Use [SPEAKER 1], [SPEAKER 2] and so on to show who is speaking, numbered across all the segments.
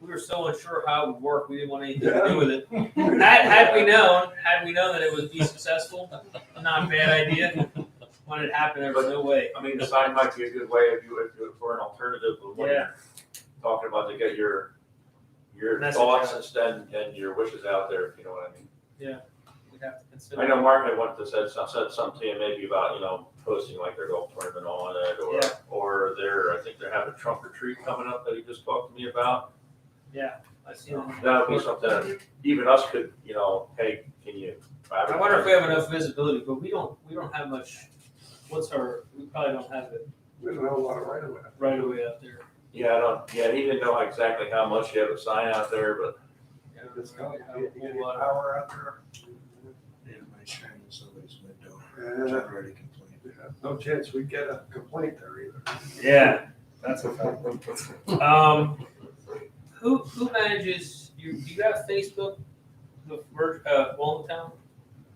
[SPEAKER 1] we were so unsure how it would work, we didn't want anything to
[SPEAKER 2] Yeah.
[SPEAKER 1] do with it. Had, had we known, had we known that it would be successful, not a bad idea. When it happened, there was no way.
[SPEAKER 2] I mean, the sign might be a good way if you, if you- for an alternative of what
[SPEAKER 1] Yeah.
[SPEAKER 2] you're talking about to get your, your
[SPEAKER 1] Message
[SPEAKER 2] thoughts
[SPEAKER 1] out.
[SPEAKER 2] and, and your wishes out there, if you know what I mean.
[SPEAKER 1] We'd have to consider.
[SPEAKER 2] I know Mark had wanted to said, some- said something maybe about, you know, posting like their golf tournament on it or,
[SPEAKER 1] Yeah.
[SPEAKER 2] or they're, I think they're having a trunk or treat coming up that he just talked to me about.
[SPEAKER 1] Yeah, I see.
[SPEAKER 2] That would be something even us could, you know, hey, can you?
[SPEAKER 1] I wonder if we have enough visibility, but we don't, we don't have much, what's our, we probably don't have it
[SPEAKER 3] We don't have a lot of right of way.
[SPEAKER 1] right away out there.
[SPEAKER 2] Yeah, I don't, yeah, he didn't know exactly how much you have a sign out there, but
[SPEAKER 1] Yeah, uh,
[SPEAKER 3] It's
[SPEAKER 1] we don't
[SPEAKER 3] gotta
[SPEAKER 1] have
[SPEAKER 3] be
[SPEAKER 1] a
[SPEAKER 3] at the end
[SPEAKER 1] whole lot
[SPEAKER 3] of an
[SPEAKER 1] of-
[SPEAKER 3] hour out there.
[SPEAKER 4] Anybody shining in somebody's window,
[SPEAKER 3] Yeah.
[SPEAKER 4] it's already complaining.
[SPEAKER 3] Yeah, No chance we get a complaint there either.
[SPEAKER 1] Yeah, that's a fact. Um, who, who manages, you, do you have Facebook, the, Vir- uh, Walton Town?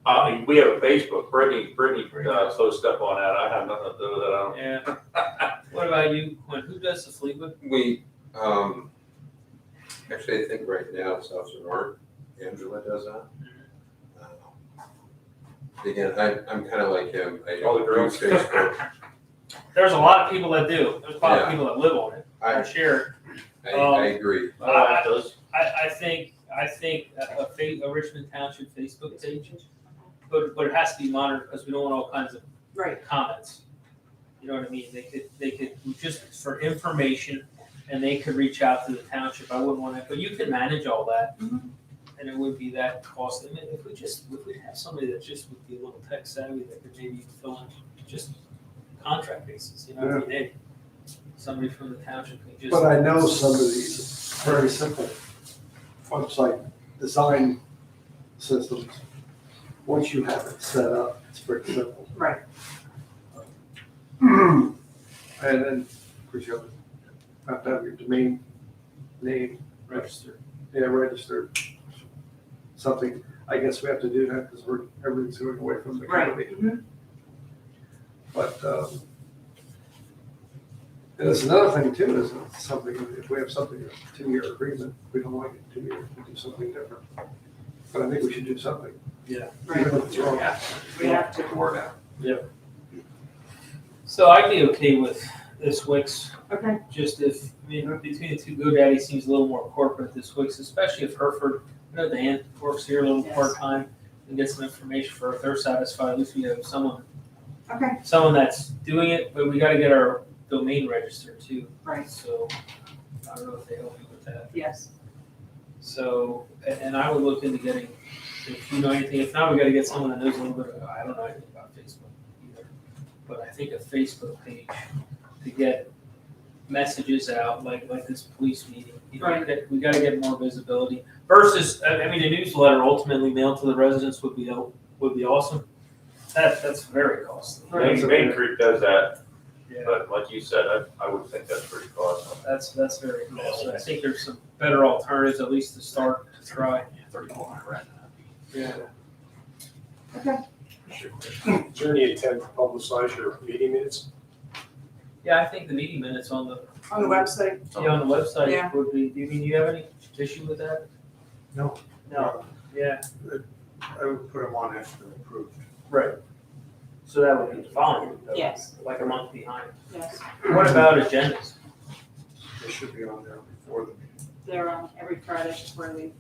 [SPEAKER 2] I mean, we have a Facebook, Brittany, Brittany, uh, so step on that, I have nothing to do with it, I don't.
[SPEAKER 1] Yeah, what about you, Quinn, who does the Fleetwood?
[SPEAKER 5] We, um, actually, I think right now, it's Officer Mark, Angela does that. Um, Again, I, I'm kind of like him, I
[SPEAKER 2] Mm-hmm. All the
[SPEAKER 5] don't do
[SPEAKER 2] girls.
[SPEAKER 5] Facebook,
[SPEAKER 1] There's a lot of people that do, there's a lot of
[SPEAKER 5] Yeah.
[SPEAKER 1] people that live on it,
[SPEAKER 5] I,
[SPEAKER 1] or share.
[SPEAKER 5] I,
[SPEAKER 1] Um,
[SPEAKER 5] I agree,
[SPEAKER 1] Uh,
[SPEAKER 2] Uh,
[SPEAKER 1] I,
[SPEAKER 2] does,
[SPEAKER 1] I, I think, I think a, a fa- a Richmond Township Facebook page, but, but it has to be monitored, because we don't want all kinds of
[SPEAKER 6] Right.
[SPEAKER 1] comments. You know what I mean? They could, they could, just for information, and they could reach out to the township. I wouldn't want that, but you can manage all that.
[SPEAKER 6] Mhm.
[SPEAKER 1] And it would be that costly. I mean, if we just, if we have somebody that just would be a little tech savvy, that could maybe fill in just contract basis, you know, what I mean, Hey, somebody from the township can just.
[SPEAKER 3] But I know some of these very simple website design systems. Once you have it set up, it's pretty simple.
[SPEAKER 6] Right.
[SPEAKER 3] And then, of course, you have to have your domain name,
[SPEAKER 1] Register.
[SPEAKER 3] yeah, registered. Something, I guess we have to do that because we're, everything's going away from the
[SPEAKER 6] Right.
[SPEAKER 3] county.
[SPEAKER 6] Mhm.
[SPEAKER 3] But, um, and it's another thing too, is it's something, if we have something, a two-year agreement, we don't like it two years, we do something different. But I think we should do something.
[SPEAKER 1] Yeah.
[SPEAKER 3] Even if it's wrong.
[SPEAKER 6] We have to.
[SPEAKER 3] Word out.
[SPEAKER 1] So I'd be okay with this Wix
[SPEAKER 6] Okay.
[SPEAKER 1] just if, I mean, between the two, GoDaddy seems a little more corporate this week, especially if Hereford, I know Dan works here a little
[SPEAKER 6] Yes.
[SPEAKER 1] part-time and gets some information for if they're satisfied, at least we have someone,
[SPEAKER 6] Okay.
[SPEAKER 1] someone that's doing it, but we gotta get our domain registered too.
[SPEAKER 6] Right.
[SPEAKER 1] So, I don't know if they help you with that.
[SPEAKER 6] Yes.
[SPEAKER 1] So, and, and I would look into getting, if you know anything, if not, we gotta get someone that knows a little bit, I don't know anything about Facebook either. But I think a Facebook page to get messages out, like, like this police meeting, you know,
[SPEAKER 6] Right.
[SPEAKER 1] that we gotta get more visibility. Versus, I, I mean, a newsletter ultimately mailed to the residents would be, help- would be awesome. That, that's very costly.
[SPEAKER 2] Main, Main Creek does that,
[SPEAKER 1] Yeah,
[SPEAKER 2] but like you said, I, I would think that's pretty costly.
[SPEAKER 1] that's, that's very costly. I think there's some better alternatives, at least to start, to try. Yeah.
[SPEAKER 6] Okay.
[SPEAKER 7] Is there any intent to publicize your meeting minutes?
[SPEAKER 1] Yeah, I think the meeting minutes on the,
[SPEAKER 6] On the website.
[SPEAKER 1] yeah, on the
[SPEAKER 6] Yeah.
[SPEAKER 1] website would be, do you mean, do you have any issue with that?
[SPEAKER 3] No.
[SPEAKER 1] No, yeah,
[SPEAKER 3] I would put them on after approved.
[SPEAKER 1] right. So that would be the following. though,
[SPEAKER 6] Yes.
[SPEAKER 1] Like a month behind.
[SPEAKER 6] Yes.
[SPEAKER 1] What about agendas?
[SPEAKER 3] They should be on there before the meeting.
[SPEAKER 6] They're on every Friday before we.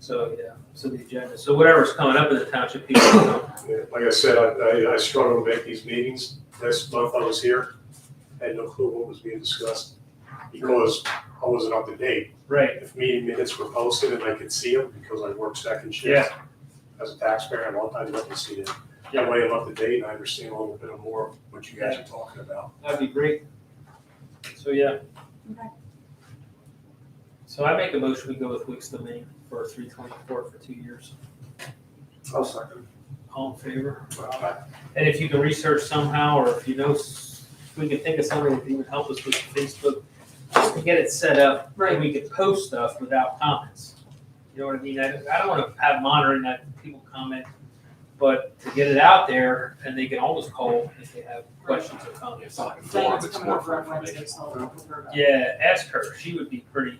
[SPEAKER 1] So, yeah, so the agenda, so whatever's coming up in the township, people will know.
[SPEAKER 7] Yeah, Like I said, I- I, I struggle to make these meetings. Last month I was here, had no clue what was being discussed because I wasn't up to date.
[SPEAKER 1] Right,
[SPEAKER 7] If meeting minutes were posted and I could see them because I work second shift. As a taxpayer, I'm all, I'd love to see them. That way I'm up to date and I understand a little bit more of what you guys are talking about.
[SPEAKER 1] that'd be great. So, yeah.
[SPEAKER 6] Okay.
[SPEAKER 1] So I make a motion, we go with Wix Domain for three twenty-four for two years.
[SPEAKER 3] I'll second.
[SPEAKER 1] All in favor? And if you can research somehow, or if you know, s- if we can think of something that can help us with Facebook, just to get it set up, and we could post stuff without comments. You know what I mean? I, I don't wanna have monitoring that people comment, but to get it out there, and they can always call if they have questions or comments.
[SPEAKER 5] it's not informed,
[SPEAKER 6] Diane's
[SPEAKER 5] it's
[SPEAKER 6] coming
[SPEAKER 5] more for
[SPEAKER 6] over on
[SPEAKER 5] information.
[SPEAKER 6] Wednesday, so I'll look over that.
[SPEAKER 1] Yeah, ask her, she would be pretty